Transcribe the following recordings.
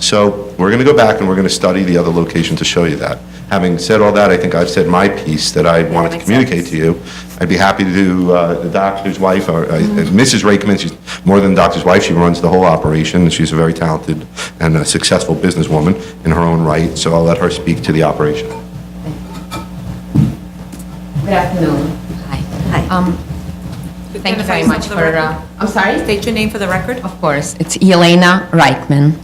So we're going to go back and we're going to study the other location to show you that. Having said all that, I think I've said my piece that I wanted to makes communicate sense. to you. I'd be happy to do uh, the doctor's wife, or uh, Mm-hmm. Mrs. Rakeman, she's more than the doctor's wife, she runs the whole operation, and she's a very talented and a successful businesswoman in her own right, so I'll let her speak to the operation. Good afternoon. Hi. Um, Thank you very much for, uh, I'm sorry? State your name for the record. Of course, it's Elena Reichman.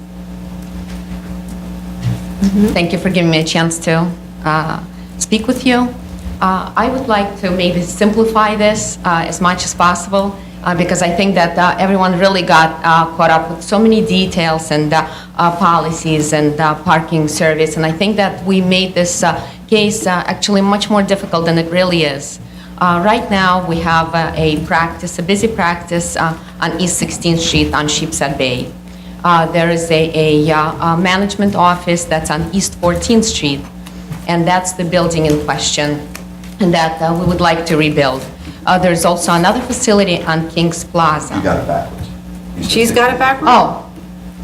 Thank you for giving me a chance to uh, speak with you. Uh, I would like to maybe simplify this uh, as much as possible, uh, because I think that uh, everyone really got uh, caught up with so many details and uh, uh, policies and uh, parking service, and I think that we made this uh, case uh, actually much more difficult than it really is. Uh, Right now, we have uh, a practice, a busy practice uh, on East 16th Street on Sheepshead Bay. Uh, There is a, a, uh, a management office that's on East 14th Street, and that's the building in question, and that uh, we would like to rebuild. Uh, There's also another facility on Kings Plaza. got it backwards. She's got it backwards? Oh,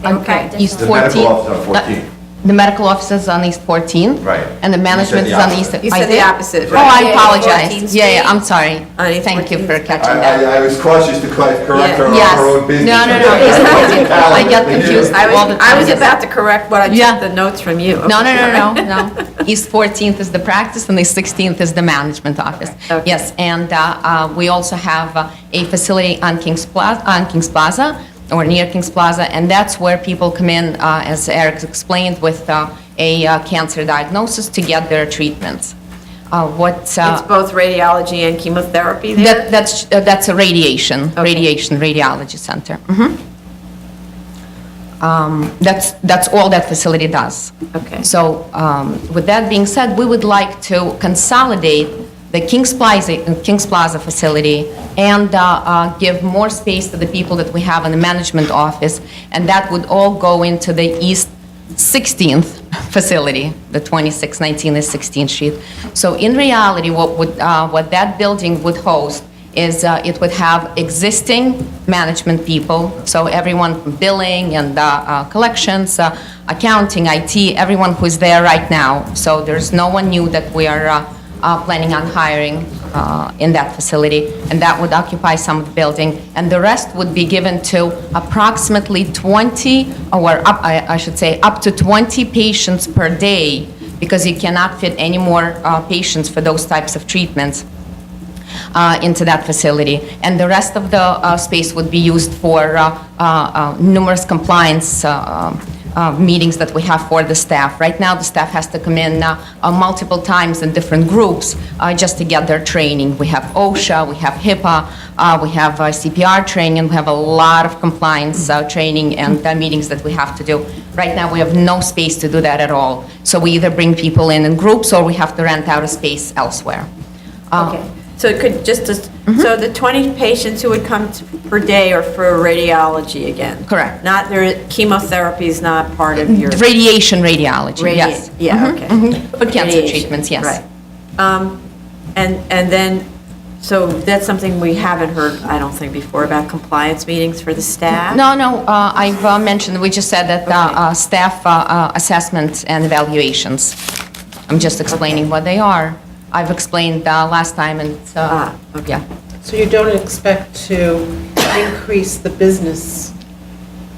on Okay. East 14th. The medical office on 14th. Uh, The medical office is on East 14th. Right. And the You said management the is on opposite. East. You I said the did? opposite, Oh, I right. Yeah, it's apologize. Yeah, 14th yeah, Street. I'm sorry. On East Thank you for 14th. catching that. I was cautious to correct her on Yes. No, no, no, East 14th. I get confused I Oh, all the was, time. I was about to correct what I Yeah. took the notes from you. No, no, no, no, no. East 14th is the practice, and the 16th is the management office. Okay. Yes, and uh, uh, we also have uh, a facility on Kings Plaza, on Kings Plaza, or near Kings Plaza, and that's where people come in, uh, as Eric explained, with uh, a uh, cancer diagnosis to get their treatments. Uh, What, uh, It's both radiology and chemotherapy there? that- that's, uh, that's a radiation, Okay. radiation radiology center. Mhm. Um, That's, that's all that facility does. Okay. So um, with that being said, we would like to consolidate the Kings Plaza, uh, Kings Plaza facility and uh, uh, give more space to the people that we have in the management office, and that would all go into the East 16th facility, the 2619 is 16th Street. So in reality, what would, uh, what that building would host is uh, it would have existing management people, so everyone from billing and uh, uh, collections, uh, accounting, IT, everyone who's there right now. So there's no one new that we are uh, uh, planning on hiring uh, in that facility, and that would occupy some of the building. And the rest would be given to approximately 20, or up, I I should say, up to 20 patients per day, because you cannot fit any more uh, patients for those types of treatments uh, into that facility. And the rest of the uh, space would be used for uh, uh, uh, numerous compliance uh, uh, meetings that we have for the staff. Right now, the staff has to come in uh, uh, multiple times in different groups uh, just to get their training. We have OSHA, we have HIPAA, uh, we have uh, CPR training, we have a lot of compliance uh, training and uh, meetings that we have to do. Right now, we have no space to do that at all. So we either bring people in in groups or we have to rent out a space elsewhere. Uh, Okay. So it could just, Mm-hmm. so the 20 patients who would come to- per day are for radiology again? Correct. Not, their chemotherapy is not part of your? Radiation radiology, Radi- yes. Yeah, Mhm, okay. mhm. For cancer Mm-hmm. Radiation, treatments, yes. Right. Um, And, and then, so that's something we haven't heard, I don't think, before about compliance meetings for the staff? No, no, uh, I've uh, mentioned, we just said that uh, Okay. uh, staff uh, uh, assessments and evaluations. I'm just explaining what they are. I've explained uh, last time and, uh, Ah, okay. yeah. So you don't expect to increase the business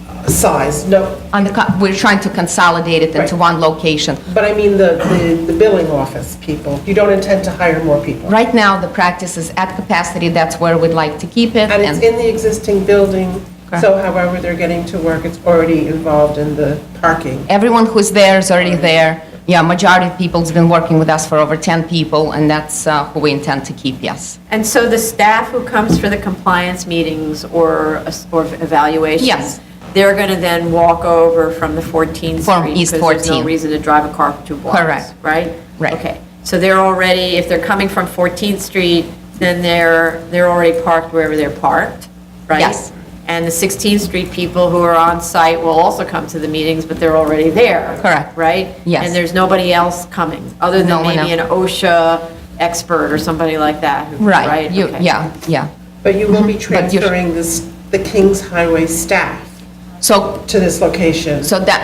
uh, size, no, On the, co- we're trying to consolidate it into Right. one location. but I mean the, the- the billing office people, you don't intend to hire more people? Right now, the practice is at capacity, that's where we'd like to keep it. And it's in the existing building, so Correct. however they're getting to work, it's already involved in the parking? Everyone who's there is already there. Yeah, majority of people's been working with us for over 10 people, and that's uh, who we intend to keep, yes. And so the staff who comes for the compliance meetings or, or evaluations? Yes. They're going to then walk over from the 14th Street? From East Because there's 14th. no reason to drive a car for two blocks? Correct. Right? Right. Okay. So they're already, if they're coming from 14th Street, then they're, they're already parked wherever they're parked, right? Yes. And the 16th Street people who are on site will also come to the meetings, but they're already there? Correct. Right? Yes. And there's nobody else coming, other No than one maybe an else. OSHA expert or somebody like that? who- Right, you, okay. yeah, yeah. But you will be Mm-hmm. But you're- transferring this, the Kings Highway staff So, to this location? so that,